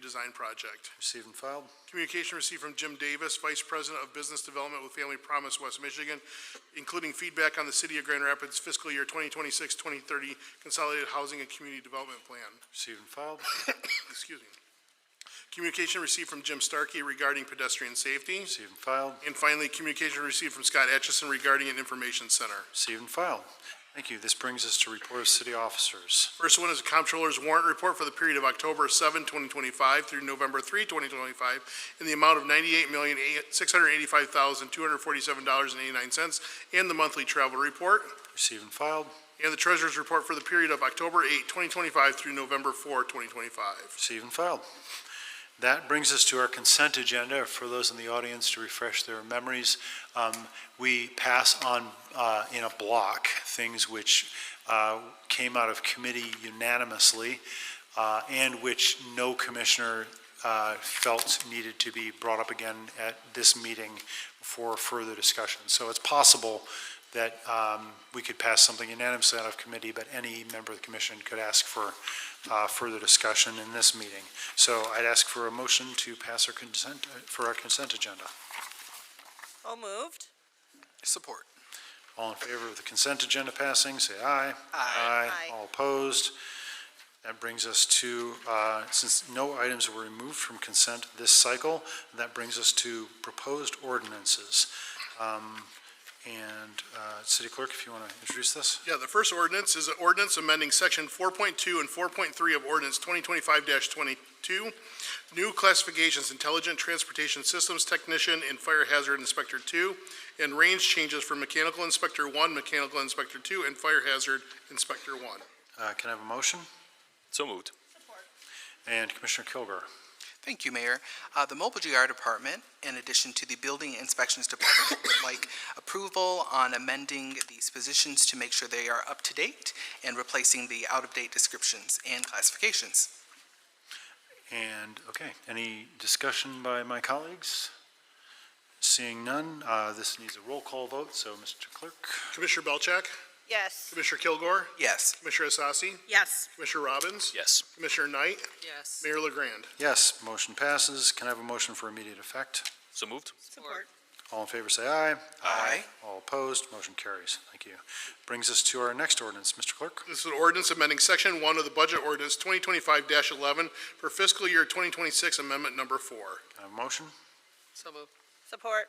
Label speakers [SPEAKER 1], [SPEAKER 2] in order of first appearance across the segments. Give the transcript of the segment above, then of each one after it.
[SPEAKER 1] Design Project.
[SPEAKER 2] Received and filed.
[SPEAKER 1] Communication received from Jim Davis, Vice President of Business Development with Family Promise West Michigan, including feedback on the City of Grand Rapids fiscal year 2026-2030 Consolidated Housing and Community Development Plan.
[SPEAKER 2] Received and filed.
[SPEAKER 1] Excuse me. Communication received from Jim Starkey regarding pedestrian safety.
[SPEAKER 2] Received and filed.
[SPEAKER 1] And finally, communication received from Scott Atchison regarding an information center.
[SPEAKER 2] Received and filed. Thank you. This brings us to report of city officers.
[SPEAKER 1] First one is the Comptroller's warrant report for the period of October 7, 2025 through November 3, 2025, in the amount of $98,685,247.89, and the monthly travel report,
[SPEAKER 2] Received and filed.
[SPEAKER 1] and the Treasurer's report for the period of October 8, 2025 through November 4, 2025.
[SPEAKER 2] Received and filed. That brings us to our consent agenda. For those in the audience to refresh their memories, um, we pass on uh, in a block things which uh, came out of committee unanimously uh, and which no commissioner uh, felt needed to be brought up again at this meeting for further discussion. So it's possible that um, we could pass something unanimously out of committee, but any member of the commission could ask for uh, further discussion in this meeting. So I'd ask for a motion to pass our consent, uh, for our consent agenda.
[SPEAKER 3] So moved.
[SPEAKER 4] Support.
[SPEAKER 2] All in favor of the consent agenda passing, say aye.
[SPEAKER 3] Aye.
[SPEAKER 2] All opposed. That brings us to, uh, since no items were removed from consent this cycle, that brings us to proposed ordinances. Um, And uh, City Clerk, if you want to introduce this?
[SPEAKER 1] Yeah, the first ordinance is an ordinance amending section four point two and four point three of ordinance twenty twenty-five twenty-two, new classifications, intelligent transportation systems technician and fire hazard inspector two, and range changes for mechanical inspector one, mechanical inspector two, and fire hazard inspector one.
[SPEAKER 2] Uh, Can I have a motion?
[SPEAKER 4] So moved.
[SPEAKER 2] And Commissioner Kilgore.
[SPEAKER 5] Thank you, Mayor. Uh, The Mobile GR Department, in addition to the Building Inspections Department, would like approval on amending these positions to make sure they are up to date and replacing the out-of-date descriptions and classifications.
[SPEAKER 2] And, okay, any discussion by my colleagues? Seeing none, uh, this needs a roll call vote, so Mr. Clerk.
[SPEAKER 1] Commissioner Belcheck,
[SPEAKER 3] Yes.
[SPEAKER 1] Commissioner Kilgore,
[SPEAKER 5] Yes.
[SPEAKER 1] Commissioner Asasi,
[SPEAKER 3] Yes.
[SPEAKER 1] Commissioner Robbins,
[SPEAKER 4] Yes.
[SPEAKER 1] Commissioner Knight,
[SPEAKER 3] Yes.
[SPEAKER 1] Mayor LaGrand.
[SPEAKER 2] Yes, motion passes. Can I have a motion for immediate effect?
[SPEAKER 4] So moved.
[SPEAKER 3] Support.
[SPEAKER 2] All in favor, say aye.
[SPEAKER 5] Aye.
[SPEAKER 2] All opposed, motion carries. Thank you. Brings us to our next ordinance, Mr. Clerk.
[SPEAKER 1] This is an ordinance amending section one of the budget ordinance twenty twenty-five eleven for fiscal year twenty twenty-six amendment number four.
[SPEAKER 2] Can I have a motion?
[SPEAKER 3] Support.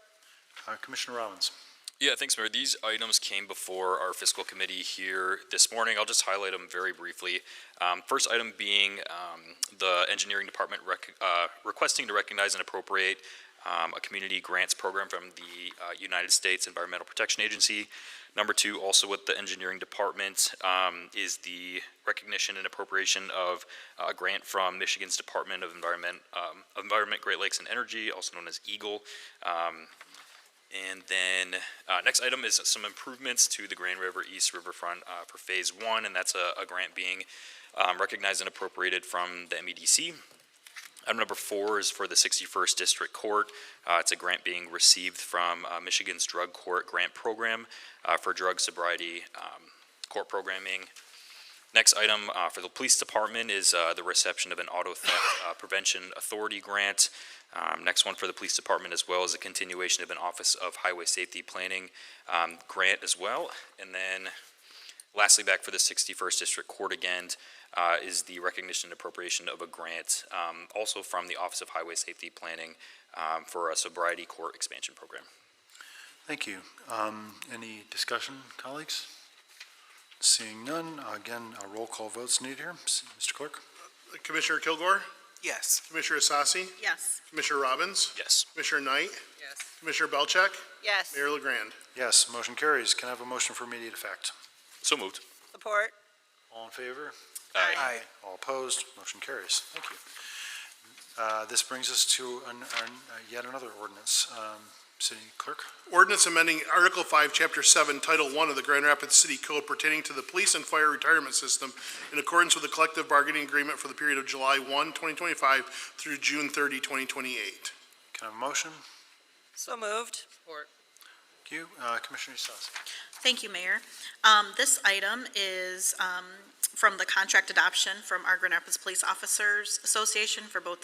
[SPEAKER 2] Uh, Commissioner Robbins.
[SPEAKER 6] Yeah, thanks, Mayor. These items came before our fiscal committee here this morning. I'll just highlight them very briefly. Um, First item being um, the engineering department rec- uh, requesting to recognize and appropriate um, a community grants program from the uh, United States Environmental Protection Agency. Number two, also with the engineering department, um, is the recognition and appropriation of uh, a grant from Michigan's Department of Environment, um, Environment, Great Lakes and Energy, also known as EAGLE. Um, and then, uh, next item is some improvements to the Grand River East Riverfront, uh, for phase one, and that's a, a grant being, um, recognized and appropriated from the MEDC. Item number four is for the sixty-first District Court. Uh, it's a grant being received from, uh, Michigan's Drug Court Grant Program, uh, for drug sobriety, um, court programming. Next item, uh, for the Police Department is, uh, the reception of an auto theft, uh, prevention authority grant. Um, next one for the police department as well is a continuation of an Office of Highway Safety Planning, um, grant as well. And then lastly, back for the sixty-first district court again, uh, is the recognition and appropriation of a grant, um, also from the Office of Highway Safety Planning, um, for a sobriety court expansion program.
[SPEAKER 2] Thank you. Um, Any discussion, colleagues? Seeing none, again, a roll call vote's needed here. S- Mr. Clerk.
[SPEAKER 1] Commissioner Kilgore,
[SPEAKER 5] Yes.
[SPEAKER 1] Commissioner Asasi,
[SPEAKER 3] Yes.
[SPEAKER 1] Commissioner Robbins,
[SPEAKER 6] Yes.
[SPEAKER 1] Commissioner Knight,
[SPEAKER 3] Yes.
[SPEAKER 1] Commissioner Belcheck,
[SPEAKER 3] Yes.
[SPEAKER 1] Mayor LaGrand.
[SPEAKER 2] Yes, motion carries. Can I have a motion for immediate effect?
[SPEAKER 6] So moved.
[SPEAKER 3] Support.
[SPEAKER 2] All in favor?
[SPEAKER 6] Aye.
[SPEAKER 5] Aye.
[SPEAKER 2] All opposed, motion carries. Thank you. Uh, This brings us to an- an- uh, yet another ordinance. Um, City Clerk,
[SPEAKER 1] Ordinance amending Article 5, Chapter 7, Title 1 of the Grand Rapids City Code pertaining to the police and fire retirement system in accordance with the collective bargaining agreement for the period of July 1, 2025 through June 30, 2028.
[SPEAKER 2] can I have a motion?
[SPEAKER 3] So moved.
[SPEAKER 2] Thank you. Uh, Commissioner Sassi.
[SPEAKER 7] Thank you, Mayor. Um, This item is um, from the contract adoption from our Grand Rapids Police Officers Association for both the